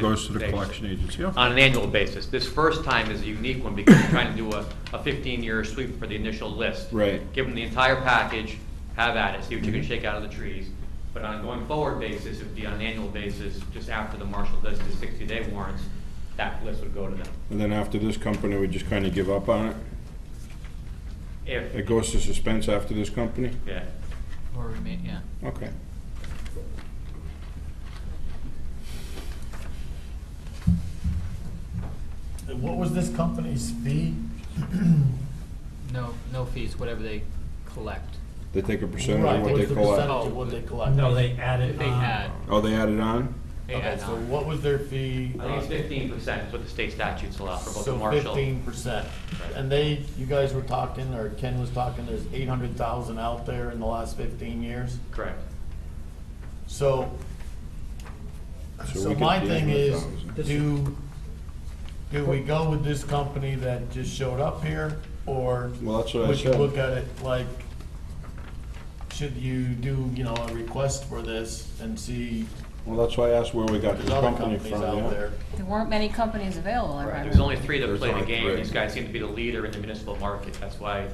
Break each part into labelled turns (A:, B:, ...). A: Goes to the
B: Thanks.
A: collection agency, yeah.
B: on an annual basis. This first time is a unique one because we're trying to do a, a fifteen-year sweep for the initial list.
A: Right.
B: Give them the entire package, have at it, see what you can shake out of the trees. But on a going forward basis, it'd be on an annual basis, just after the marshal does the sixty-day warrants, that list would go to them.
A: And then after this company, we just kind of give up on it? It
B: If,
A: goes to suspense after this company?
B: yeah,
C: Or remain, yeah.
A: Okay.
D: And What was this company's fee?
C: No, no fees, whatever they collect.
A: They take a percentage
D: Right,
A: of what they
D: what's the
A: collect?
D: percentage of what they collect?
E: No, they added
C: They
E: on.
C: add,
A: Oh, they added on?
C: they
D: Okay,
C: add
D: so
C: on.
D: what was their fee?
B: I think it's fifteen percent is what the state statutes allow for both the
D: So
B: marshal.
D: fifteen percent.
B: Right.
D: And they, you guys were talking, or Ken was talking, there's eight hundred thousand out there in the last fifteen years.
B: Correct.
D: So,
A: we
D: so
A: could
D: my
A: use
D: thing
A: the
D: is,
A: 1,000.
D: do, do we go with this company that just showed up here? Or
A: Well, that's what I
D: would you
A: said.
D: look at it like, should you do, you know, a request for this and see
A: Well, that's why I asked where we got
D: There's
A: this
D: other
A: company from,
D: companies out
A: yeah.
D: there.
F: There weren't many companies available, I remember.
B: There's only three that
A: There's
B: play
A: only
B: the game.
A: three.
B: These guys seem to be the leader in the municipal market. That's why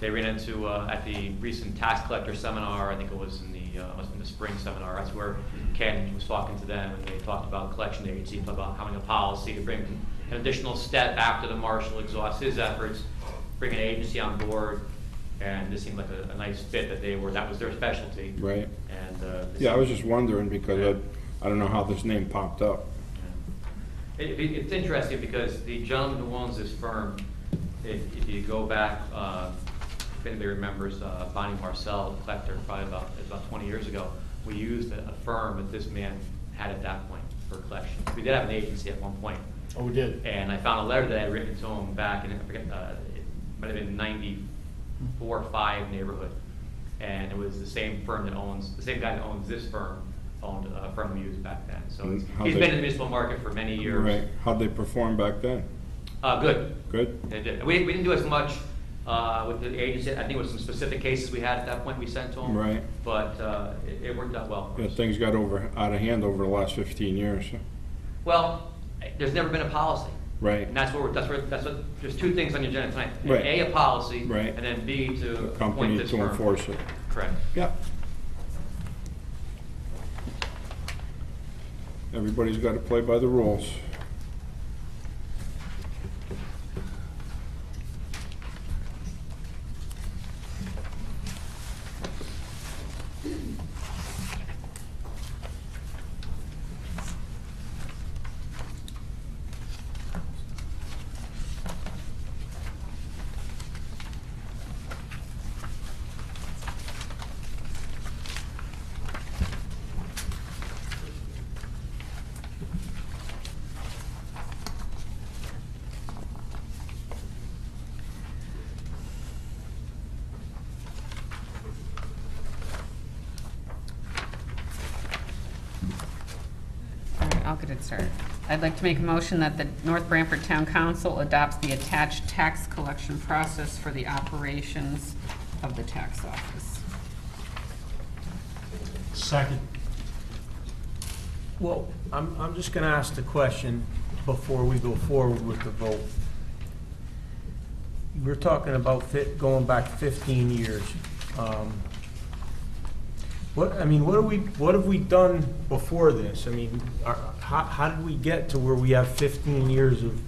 B: they ran into, uh, at the recent tax collector seminar, I think it was in the, uh, must have been the spring seminar, that's where Ken was talking to them, and they talked about collection agency, talked about having a policy to bring an additional step after the marshal exhausts his efforts, bring an agency on board, and this seemed like a, a nice fit that they were, that was their specialty.
A: Right.
B: And, uh. they
A: Yeah, I
B: seemed-
A: was just wondering because I, I don't know how this name popped up.
B: it, it- it's interesting because the gentleman who owns this firm, if, if you go back, uh, if anybody remembers, uh, Bonnie Marcel, the collector, probably about, about twenty years ago, we used a a firm that this man had at that point for collection. We did have an agency at one point.
D: Oh, we did.
B: And I found a letter that I had written to him back in, I forget, uh, it might have been ninety-four, five neighborhood. And it was the same firm that owns, the same guy that owns this firm, owned uh, a firm we used back then. So he's
A: How'd
B: he's
A: they-
B: been in the municipal market for many years.
A: Right, how'd they perform back then?
B: Uh, good.
A: Good?
B: They did. We, we didn't do as much, uh, with the agency, I think it was some specific cases we had at that point we sent to them.
A: Right.
B: But, uh, it, it worked out well. for
A: Yeah,
B: us.
A: things got over, out of hand over the last fifteen years.
B: Well, there's never been a policy.
A: Right.
B: And that's where, we're- that's where, that's what, there's two things on your agenda tonight.
A: Right.
B: A, a policy.
A: Right.
B: And then B,
A: A
B: to appoint
A: Company
B: this
A: to
B: firm.
A: enforce it.
B: Correct.
A: Yeah. Everybody's got to play by the rules.
F: All right, I'll get it started. I'd like to make a motion that the North Branford Town Council adopts the attached tax collection process for the operations of the tax office.
E: Second. Well, I'm, I'm just gonna ask the question before we go forward with the vote. We're talking about fit, going back fifteen years. Um, What, I mean, what have we, what have we done before this? I mean, are, how, how did we get to where we have fifteen years of,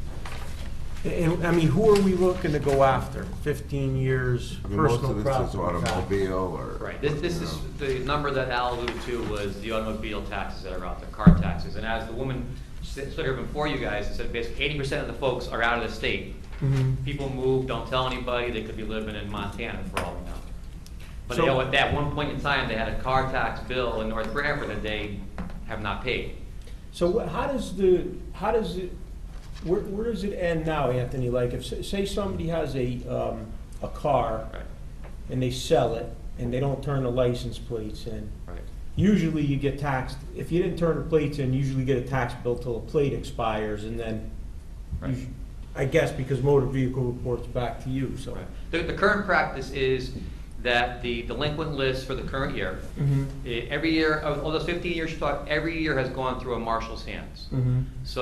E: and, I mean, who are we looking to go after? Fifteen years
G: I mean, Most
E: personal
G: of this is
E: property tax.
G: automobile or.
B: Right. This, this
G: you
B: is,
G: know.
B: the number that Al alluded to was the automobile taxes that are out there, car taxes. And as the woman stood stood here before you guys and said, basically eighty percent of the folks are out of the state.
E: Mhm.
B: People move, don't tell anybody, they could be living in Montana for all we know. But you
E: So-
B: know, at that one point in time, they had a car tax bill in North Branford that they have not paid.
E: So wh- how does the, how does it, where, where does it end now, Anthony? Like, if, s- say somebody has a, um, a car
B: Right,
E: and they sell it and they don't turn the license plates in,
B: right.
E: usually you get taxed, if you didn't turn the plates in, you usually get a tax bill till the plate expires and then, you
B: Right.
E: sh- I guess because motor vehicle reports back to you, so.
B: Right. The, the current practice is that the delinquent list for the current year,
E: Mhm.
B: eh, every year, of of those 15 years you talked, every year has gone through a marshal's hands.
E: Mhm.
B: So